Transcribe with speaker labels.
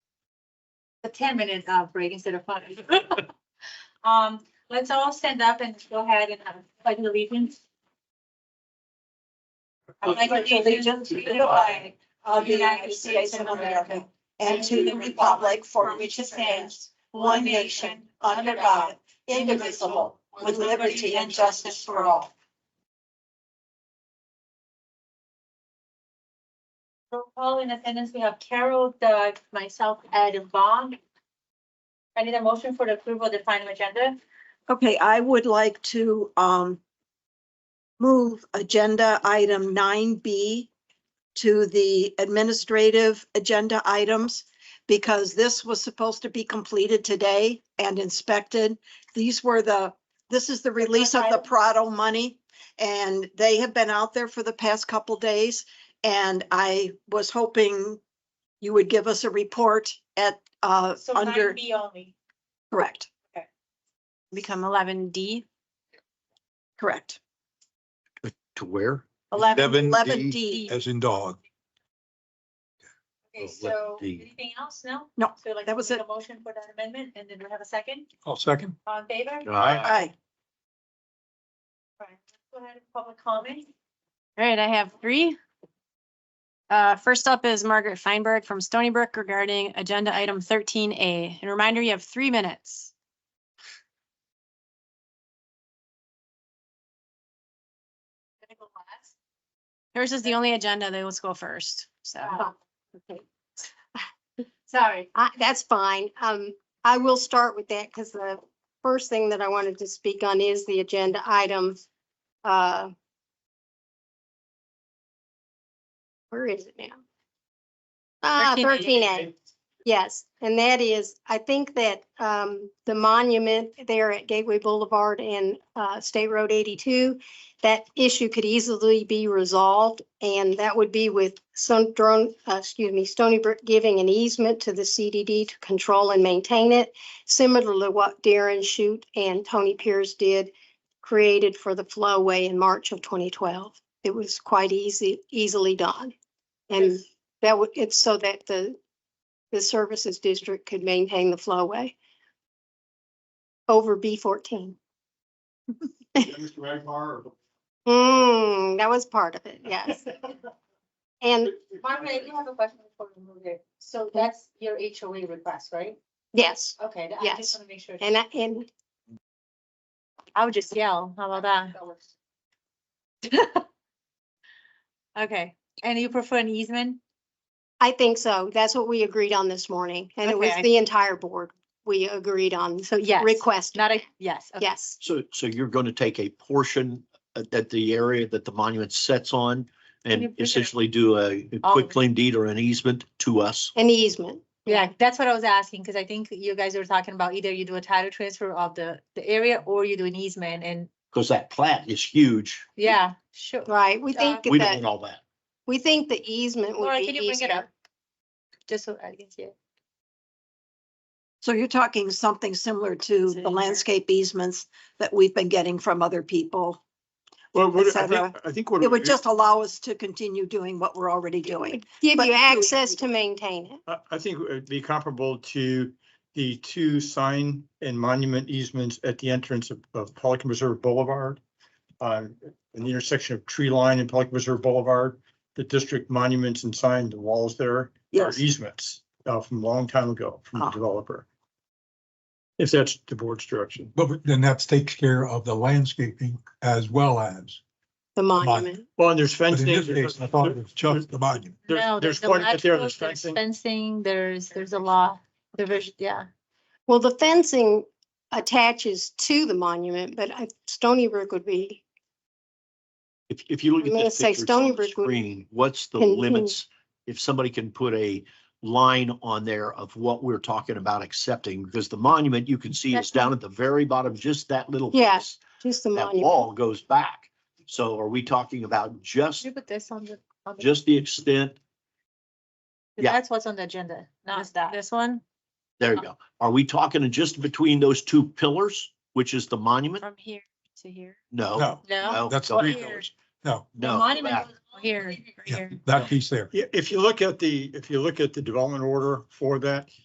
Speaker 1: ten minute uh break instead of five. Um, let's all stand up and go ahead and have a pledge of allegiance. I pledge allegiance to the flag
Speaker 2: of the United States of America and to the republic for which it stands, one nation, under God, indivisible, with liberty and justice for all.
Speaker 1: Roll call in attendance, we have Carol, Doug, myself, Ed, and Vaughn. I need a motion for the approval of the final agenda.
Speaker 2: Okay, I would like to um move agenda item nine B to the administrative agenda items because this was supposed to be completed today and inspected. These were the, this is the release of the
Speaker 1: item?
Speaker 2: Prado money and they have been out there for the past couple days. And I was hoping you would give us a report at uh
Speaker 1: So nine
Speaker 2: under,
Speaker 1: B only.
Speaker 2: correct,
Speaker 3: Become eleven D,
Speaker 2: correct.
Speaker 4: To where?
Speaker 3: eleven,
Speaker 2: Eleven D.
Speaker 4: As in dog. Oh,
Speaker 1: Okay,
Speaker 4: let
Speaker 1: so
Speaker 4: D.
Speaker 1: anything else? No?
Speaker 2: No,
Speaker 1: So like,
Speaker 2: that was
Speaker 1: make a motion for that amendment and then we have a second
Speaker 4: I'll second.
Speaker 1: on favor?
Speaker 2: Aye.
Speaker 1: Right. Go ahead, public comment.
Speaker 3: all right, I have three. Uh, first up is Margaret Feinberg from Stony Brook regarding agenda item thirteen A. And reminder, you have three minutes.
Speaker 1: Gonna go last.
Speaker 3: Yours is the only agenda that was go first, so.
Speaker 2: Uh-huh.
Speaker 1: Oh,
Speaker 5: Okay,
Speaker 1: Sorry.
Speaker 5: I, that's fine. Um, I will start with that because the first thing that I wanted to speak on is the agenda item. Uh. Where is it now? Ah,
Speaker 3: 13A.
Speaker 5: thirteen A, yes. And that is, I think that, um, the monument there at Gateway Boulevard and, uh, State Road eighty-two, that issue could easily be resolved, and that would be with some drone, uh, excuse me, Stony Brook giving an easement to the CDD to control and maintain it, similar to what Darren Shute and Tony Pierce did, created for the flowway in March of twenty twelve. It was quite easy, easily done. And that would, it's so that the, the services district could maintain the flowway over B fourteen.
Speaker 6: Mr. Magbar, or-
Speaker 5: Mm, that was part of it, yes. And
Speaker 1: Margaret, I do have a question before we move there. So that's your HOA request, right?
Speaker 5: yes,
Speaker 1: Okay, that- I
Speaker 5: Yes.
Speaker 1: just want to make sure.
Speaker 5: and I, and
Speaker 3: I would just yell, how about that?
Speaker 1: That was-
Speaker 3: Okay, and you prefer an easement?
Speaker 5: I think so. That's what we agreed on this morning. And it was
Speaker 3: Okay.
Speaker 5: the entire board we agreed on. So
Speaker 3: yes.
Speaker 5: request,
Speaker 3: Not a, yes, okay.
Speaker 5: yes,
Speaker 7: So, so you're going to take a portion at, at the area that the monument sets on
Speaker 1: you
Speaker 7: and
Speaker 1: bring it up?
Speaker 7: essentially do a a
Speaker 3: All of
Speaker 7: quick
Speaker 3: it.
Speaker 7: claim deed or an easement to us?
Speaker 5: an easement.
Speaker 3: Yeah, that's what I was asking, because I think you guys were talking about either you do a title transfer of the, the area or you do an easement and,
Speaker 7: Because that plat is huge.
Speaker 3: yeah, sure.
Speaker 5: Right, we think
Speaker 7: We don't want
Speaker 5: that,
Speaker 7: all that.
Speaker 5: we think the easement would
Speaker 3: Laura,
Speaker 5: be
Speaker 3: can you bring it up?
Speaker 5: easier.
Speaker 3: Just so I can see it.
Speaker 2: So you're talking something similar to
Speaker 3: Is it in
Speaker 2: the
Speaker 3: here?
Speaker 2: landscape easements that we've been getting from other people.
Speaker 6: Well, what- I
Speaker 2: Etc.
Speaker 6: think, I think what.
Speaker 2: It would just allow us to continue doing what we're already doing.
Speaker 5: Give
Speaker 2: but
Speaker 5: you
Speaker 2: do-
Speaker 5: access to maintain it.
Speaker 6: I, I think it'd be comparable to the two sign and monument easements at the entrance of, of Pelican Reserve Boulevard. Um, in the intersection of Tree Line and Pelican Reserve Boulevard, the district monuments and sign, the walls there are
Speaker 2: Yes.
Speaker 6: easements, uh, from a long time ago from the
Speaker 2: Ah.
Speaker 6: developer. If that's the board's direction.
Speaker 8: But then that takes care of the landscaping as well as,
Speaker 5: The monument.
Speaker 6: Well, and there's
Speaker 8: but in
Speaker 6: fencing.
Speaker 8: this case, I thought it was
Speaker 6: there's-
Speaker 8: just the monument.
Speaker 3: No,
Speaker 6: There's, there's
Speaker 3: the
Speaker 6: quite a bit there,
Speaker 3: lateral,
Speaker 6: there's fencing.
Speaker 3: Fencing, there's, there's a law, division, yeah.
Speaker 5: Well, the fencing attaches to the monument, but I- Stony Brook would be,
Speaker 7: If, if you look
Speaker 5: I'm
Speaker 7: at
Speaker 5: gonna
Speaker 7: this
Speaker 5: say
Speaker 7: picture on
Speaker 5: Stony
Speaker 7: the
Speaker 5: Brook would
Speaker 7: screen, what's the
Speaker 5: continue.
Speaker 7: limits? If somebody can put a line on there of what we're talking about accepting, because the monument you can see is
Speaker 3: That's-
Speaker 7: down at the very bottom, just that little
Speaker 5: Yeah.
Speaker 7: piece.
Speaker 5: just the
Speaker 7: That
Speaker 5: monument.
Speaker 7: wall goes back. So are we talking about just
Speaker 3: Can you put this on the, on the-
Speaker 7: just the extent, yeah.
Speaker 1: That's what's on the agenda, not
Speaker 3: this-
Speaker 1: that.
Speaker 3: This one
Speaker 7: there you go. Are we talking just between those two pillars, which is the monument?
Speaker 3: from here to here?
Speaker 7: No.
Speaker 8: No,
Speaker 3: No,
Speaker 8: that's
Speaker 7: no,
Speaker 8: the
Speaker 7: no,
Speaker 3: pillars.
Speaker 8: no,
Speaker 3: the
Speaker 7: no,
Speaker 3: monument
Speaker 7: back.
Speaker 3: goes all here,
Speaker 8: yeah,
Speaker 3: here.
Speaker 8: that piece there.
Speaker 6: Yeah, if you look at the, if you look at the development order for that,